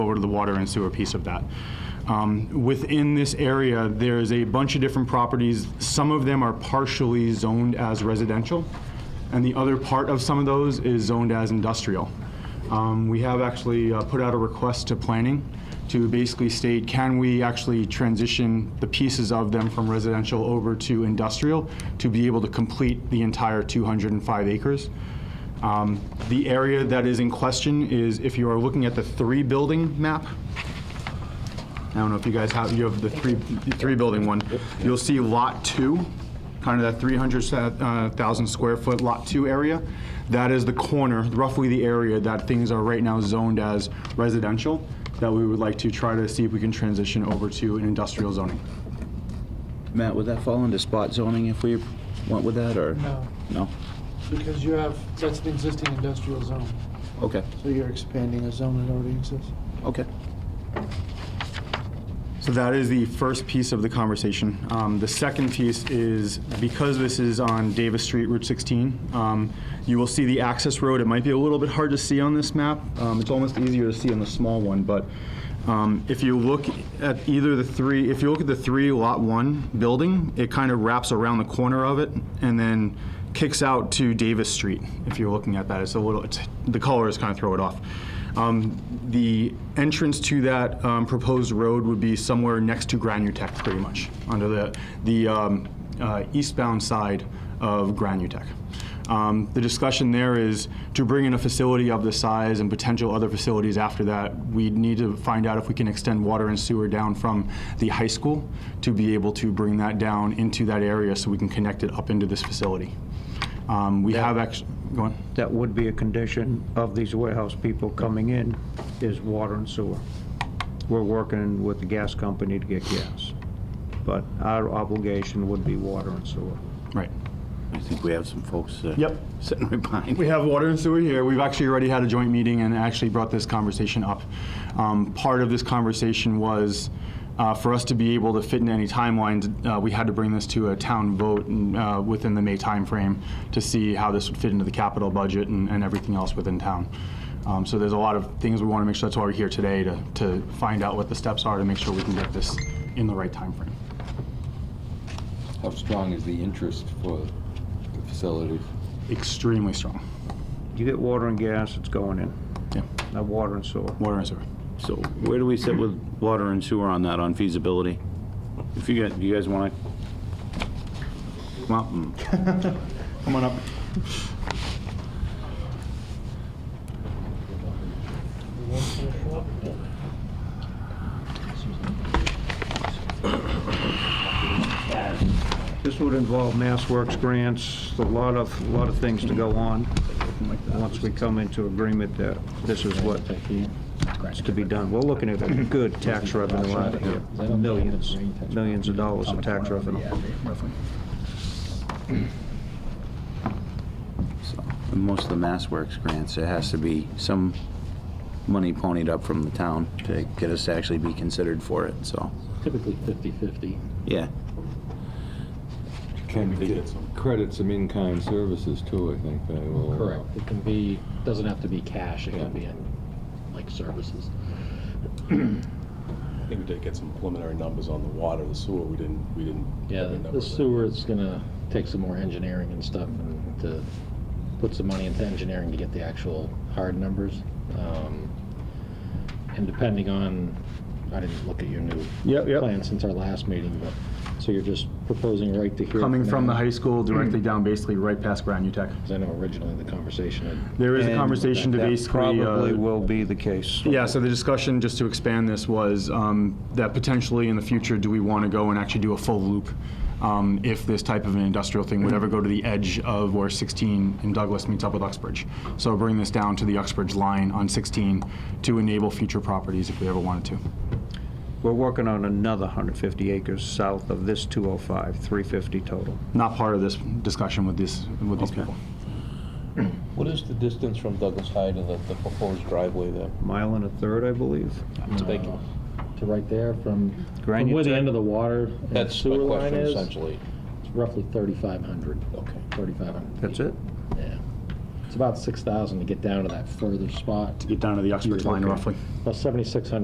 over to the water and sewer piece of that. Um, Within this area, there is a bunch of different properties. Some of them are partially zoned as residential, and the other part of some of those is zoned as industrial. Um, We have actually uh, put out a request to planning to basically state, can we actually transition the pieces of them from residential over to industrial to be able to complete the entire 205 acres? Um, The area that is in question is if you are looking at the three-building map, I don't know if you guys have, you have the three, the three-building one, you'll see Lot 2, kind of that 300,000 uh, square foot Lot 2 area. That is the corner, roughly the area that things are right now zoned as residential, that we would like to try to see if we can transition over to an industrial zoning. Matt, would that fall into spot zoning if we went with that, or? No, No? because you have, that's an existing industrial zone, Okay, so you're expanding a zone that already exists. okay. So that is the first piece of the conversation. Um, The second piece is, because this is on Davis Street, Route 16, um, you will see the access road. It might be a little bit hard to see on this map. Um, It's almost easier to see on the small one, but um, if you look at either the three, if you look at the three lot one building, it kind of wraps around the corner of it and then kicks out to Davis Street, if you're looking at that. It's a little, it's- the colors kind of throw it off. Um, The entrance to that um, proposed road would be somewhere next to Granutech, pretty much, under the, the um, uh, eastbound side of Granutech. Um, The discussion there is to bring in a facility of the size and potential other facilities after that, we need to find out if we can extend water and sewer down from the high school to be able to bring that down into that area so we can connect it up into this facility. Um, We have actually, go on. that would be a condition of these warehouse people coming in, is water and sewer. We're working with the gas company to get gas, but our obligation would be water and sewer. Right. I think we have some folks uh, Yep. sitting right behind. We have water and sewer here. We've actually already had a joint meeting and actually brought this conversation up. Um, Part of this conversation was, uh, for us to be able to fit in any timelines, uh, we had to bring this to a town vote and, uh, within the May timeframe to see how this would fit into the capital budget and and everything else within town. Um, So there's a lot of things we want to make sure, that's why we're here today, to to find out what the steps are to make sure we can get this in the right timeframe. How strong is the interest for the facility? Extremely strong. You get water and gas, it's going in, Yeah, not water and sewer. water and sewer. So where do we sit with water and sewer on that, on feasibility? If you guys, you guys want to come up and Come on up. This would involve Mass Works grants, a lot of, a lot of things to go on, once we come into agreement that this is what is to be done. We're looking at a good tax revenue out of here, millions, millions of dollars of tax revenue. So, and Most of the Mass Works grants, there has to be some money ponied up from the town to get us to actually be considered for it, so, typically 50/50. yeah. Can we get some credits some in-kind services too, I think they will. It can be, doesn't have to be cash, it can be in, like, services. I think we did get some preliminary numbers on the water, the sewer, we didn't, we didn't. Yeah, have a number the sewer is gonna take some more engineering and stuff, and to put some money into engineering to get the actual hard numbers. Um, And depending on, I didn't look at your new Yep, yep. plan since our last meeting, but, so you're just proposing right to here? Coming from the now? high school directly down, basically right past Granutech. 'Cause I know originally the conversation had There is a And conversation to that basically, Probably uh, will be the case. yeah, so the discussion, just to expand this, was um, that potentially in the future, do we want to go and actually do a full loop? um, If this type of an industrial thing would ever go to the edge of where 16 in Douglas meets up with Uxbridge. So bring this down to the Uxbridge line on 16 to enable future properties if we ever wanted to. We're working on another 150 acres south of this 205, 350 total. Not part of this discussion with this, with these people. What is the distance from Douglas High to the, the proposed driveway there? Mile and a third, I believe. Thank you. to right there from, from Granite where the tech. end of the water and That's my sewer line question is, essentially. it's roughly 3,500. Okay. 3,500. That's it? Yeah. It's about 6,000 to get down to that further spot. get down to the Uxbridge line Okay. roughly. About 7,600